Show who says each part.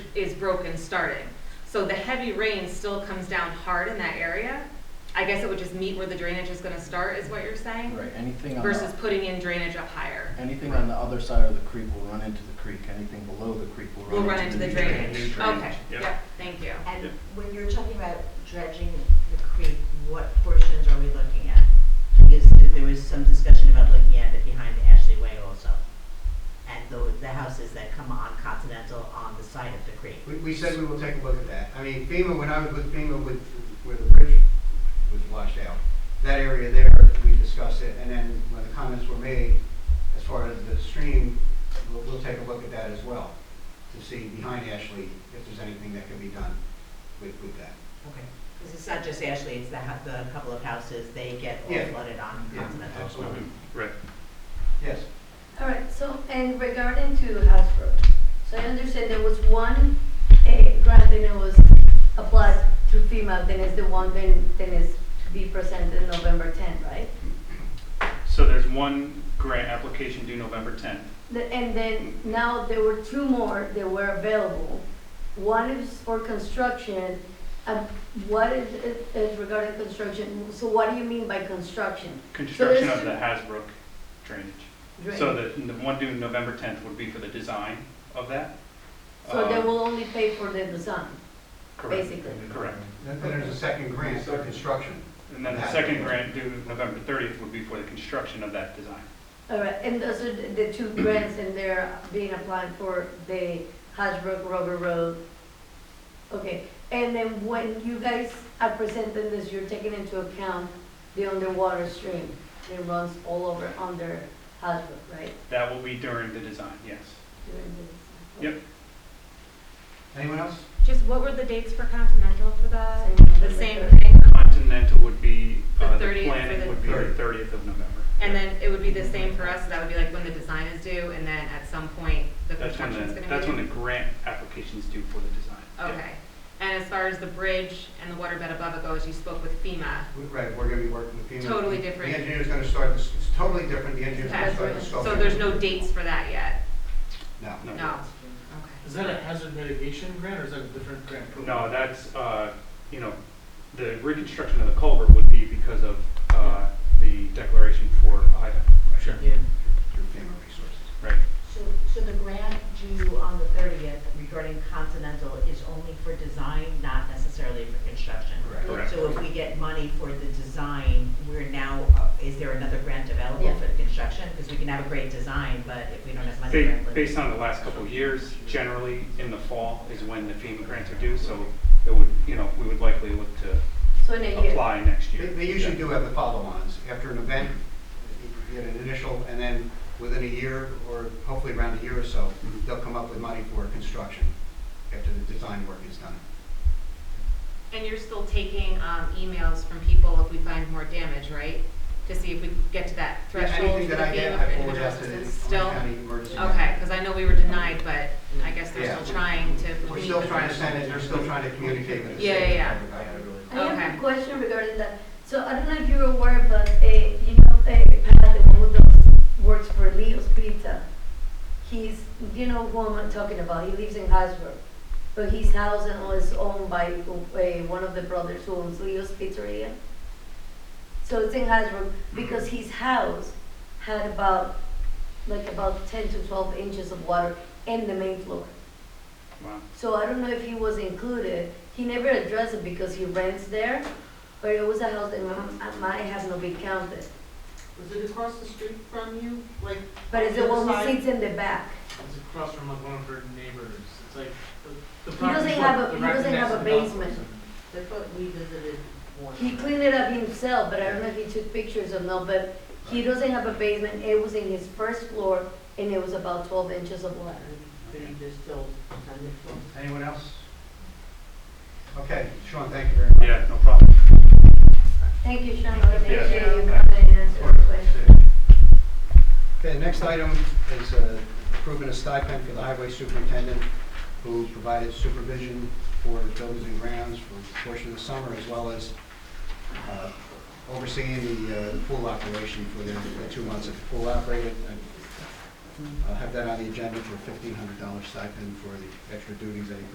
Speaker 1: is broken starting. So the heavy rain still comes down hard in that area. I guess it would just meet where the drainage is gonna start, is what you're saying?
Speaker 2: Right, anything on
Speaker 1: Versus
Speaker 2: the,
Speaker 1: putting in drainage up higher.
Speaker 2: anything on the other side of the creek will run into the creek, anything below the creek will
Speaker 1: We'll
Speaker 2: run into the. drain.
Speaker 1: drainage.
Speaker 3: drainage,
Speaker 1: Okay,
Speaker 3: yeah.
Speaker 1: yep, thank you.
Speaker 4: And
Speaker 3: Yep.
Speaker 4: when you're talking about dredging the creek, what portions are we looking at? Because there was some discussion about looking at it behind Ashley Way also. And the, the houses that come on Continental on the side of the creek.
Speaker 5: We, we said we will take a look at that. I mean, FEMA, when I was with FEMA with, where the bridge was washed out, that area there, we discussed it, and then when the comments were made, as far as the stream, we'll, we'll take a look at that as well, to see behind Ashley if there's anything that can be done with, with that.
Speaker 4: Okay. Because it's not just Ashley, it's the, hou- the couple of houses, they get all
Speaker 5: Yeah.
Speaker 4: flooded on
Speaker 5: Yeah,
Speaker 4: Continental.
Speaker 5: absolutely.
Speaker 3: Right.
Speaker 5: Yes,
Speaker 6: All right, so, and regarding to House Road, so I understand there was one eh, grant that was applied through FEMA, then is the one then, then is to be presented November 10, right?
Speaker 3: So there's one grant application due November 10th.
Speaker 6: The- And then now there were two more that were available. One is for construction, and what is, is regarding construction, so what do you mean by construction?
Speaker 3: Construction
Speaker 6: this-
Speaker 3: of the Hasbrook drainage. So the, the one due November 10th would be for the design of that.
Speaker 6: So they
Speaker 3: Um,
Speaker 6: will only pay for the design,
Speaker 3: correct.
Speaker 6: basically?
Speaker 3: Correct.
Speaker 5: then then there's a second grant for construction.
Speaker 3: And then the second grant due November 30th would be for the construction of that design.
Speaker 6: All right, and those are the the two grants, and they're being applied for the Hasbrook Rubber Road. Okay, and then when you guys are presenting this, you're taking into account the underwater stream that runs all over under Hasbrook, right?
Speaker 3: That will be during the design, yes.
Speaker 6: During the-
Speaker 3: Yep.
Speaker 5: Anyone else?
Speaker 1: Just what were the dates for Continental for that?
Speaker 6: Same.
Speaker 1: The same thing?
Speaker 3: Continental would be, uh,
Speaker 1: The
Speaker 3: the
Speaker 1: 30th for the-
Speaker 3: planning would be the 30th of November.
Speaker 1: And then it would be the same for us, so that would be like when the design is due, and then at some point, the
Speaker 3: That's when
Speaker 1: construction's gonna
Speaker 3: the,
Speaker 1: be
Speaker 3: that's when the
Speaker 1: due?
Speaker 3: grant application's due for the design. Yeah.
Speaker 1: Okay, and as far as the bridge and the waterbed above it goes, you spoke with FEMA.
Speaker 5: We- Right, we're gonna be working with FEMA.
Speaker 1: Totally different.
Speaker 5: The engineer's gonna start, this- it's totally different, the engineer's gonna start the
Speaker 3: Oh,
Speaker 1: So
Speaker 5: sculpture.
Speaker 1: there's no dates for that yet?
Speaker 5: No.
Speaker 3: No.
Speaker 1: No,
Speaker 7: Is
Speaker 1: okay.
Speaker 7: that a hazard mitigation grant or is that a different grant program?
Speaker 3: No, that's, uh, you know, the reconstruction of the culvert would be because of uh, the declaration for Ida.
Speaker 7: Sure.
Speaker 4: Yeah.
Speaker 5: Through FEMA resources.
Speaker 3: Right.
Speaker 4: So, so the grant due on the thirtieth regarding Continental is only for design, not necessarily for construction?
Speaker 5: Correct.
Speaker 3: Correct.
Speaker 4: So if we get money for the design, we're now, uh, is there another grant available
Speaker 6: Yeah.
Speaker 4: for the construction? Because we can have a great design, but if we don't have money.
Speaker 3: Ba-
Speaker 4: we're in-
Speaker 3: Based on the last couple of years, generally in the fall is when the FEMA grants are due, so it would, you know, we would likely look to
Speaker 6: So in a year.
Speaker 3: apply next
Speaker 5: They,
Speaker 3: year.
Speaker 5: they usually
Speaker 3: Yeah.
Speaker 5: do have the follow-ons. After an event, you get an initial, and then within a year, or hopefully around a year or so,
Speaker 3: Mhm.
Speaker 5: they'll come up with money for construction after the design work is done.
Speaker 1: And you're still taking um, emails from people if we find more damage, right? To see if we get to that
Speaker 5: Yeah,
Speaker 1: threshold
Speaker 5: Anything
Speaker 1: for the
Speaker 5: that I get,
Speaker 1: FEMA
Speaker 5: I
Speaker 1: for
Speaker 5: forward
Speaker 1: individual
Speaker 5: that to the
Speaker 1: assistance still?
Speaker 5: Orange County Emergency.
Speaker 1: Okay, because I know we were denied, but I guess they're
Speaker 5: Yeah.
Speaker 1: still trying to.
Speaker 5: We're
Speaker 1: meet
Speaker 5: still
Speaker 1: the
Speaker 5: trying to
Speaker 1: threshold.
Speaker 5: send it, they're still trying to communicate with the
Speaker 1: Yeah,
Speaker 5: state.
Speaker 1: yeah,
Speaker 6: I have
Speaker 1: Okay.
Speaker 6: a question regarding that. So I don't know if you're aware, but uh, you know, uh, Pat, the one who does, works for Leo's Pizza, he's, you know who I'm talking about, he lives in Hasbro. But his house and all is owned by uh, one of the brothers who owns Leo's Pizzeria. So it's in Hasbro because his house had about, like about 10 to 12 inches of water in the main floor.
Speaker 3: Wow.
Speaker 6: So I don't know if he was included. He never addressed it because he rents there, but it was a house that mi- might have not been counted.
Speaker 7: Was it across the street from you? Like,
Speaker 6: But it's the one who
Speaker 7: Side?
Speaker 6: sits in the back.
Speaker 7: it's across from like one of her neighbors. It's like the- the
Speaker 6: He
Speaker 7: property.
Speaker 6: doesn't have a-
Speaker 7: the
Speaker 6: he
Speaker 7: property
Speaker 6: doesn't
Speaker 7: next
Speaker 6: have a
Speaker 7: to the golf course.
Speaker 6: basement.
Speaker 4: That's what we visited one.
Speaker 6: He cleaned it up himself, but I don't know if he took pictures or not, but he doesn't have a basement. It was in his first floor and it was about twelve inches of water.
Speaker 4: Pretty just still kind of-
Speaker 5: Anyone else? Okay, Sean, thank you very much.
Speaker 3: Yeah, no problem.
Speaker 6: Thank you, Sean. I appreciate you
Speaker 5: Yeah.
Speaker 6: coming and answering the question.
Speaker 5: Okay, the next item is uh, approving a stipend for the highway superintendent who provided supervision for the buildings and grounds for a portion of the summer as well as uh, overseeing the uh, pool operation for the the two months that the pool operated. I- I'll have that on the agenda for a $1,500 stipend for the extra duties that he